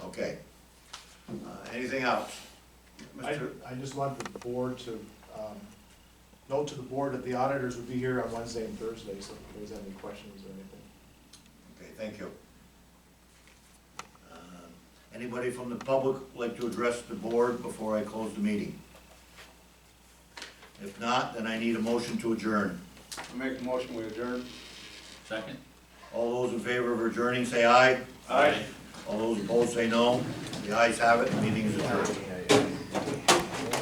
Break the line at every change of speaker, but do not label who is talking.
Okay. Uh, Anything else?
I,
Mr.
I just want the board to, um, note to the board that the auditors would be here on Wednesday and Thursday, so if there's any questions or anything.
Okay, thank you. Um, Anybody from the public like to address the board before I close the meeting? If not, then I need a motion to adjourn.
I make a motion, we adjourn.
Second.
All those in favor of adjourning, say aye.
Aye.
All those opposed, say no. The ayes have it, the meeting is adjourned.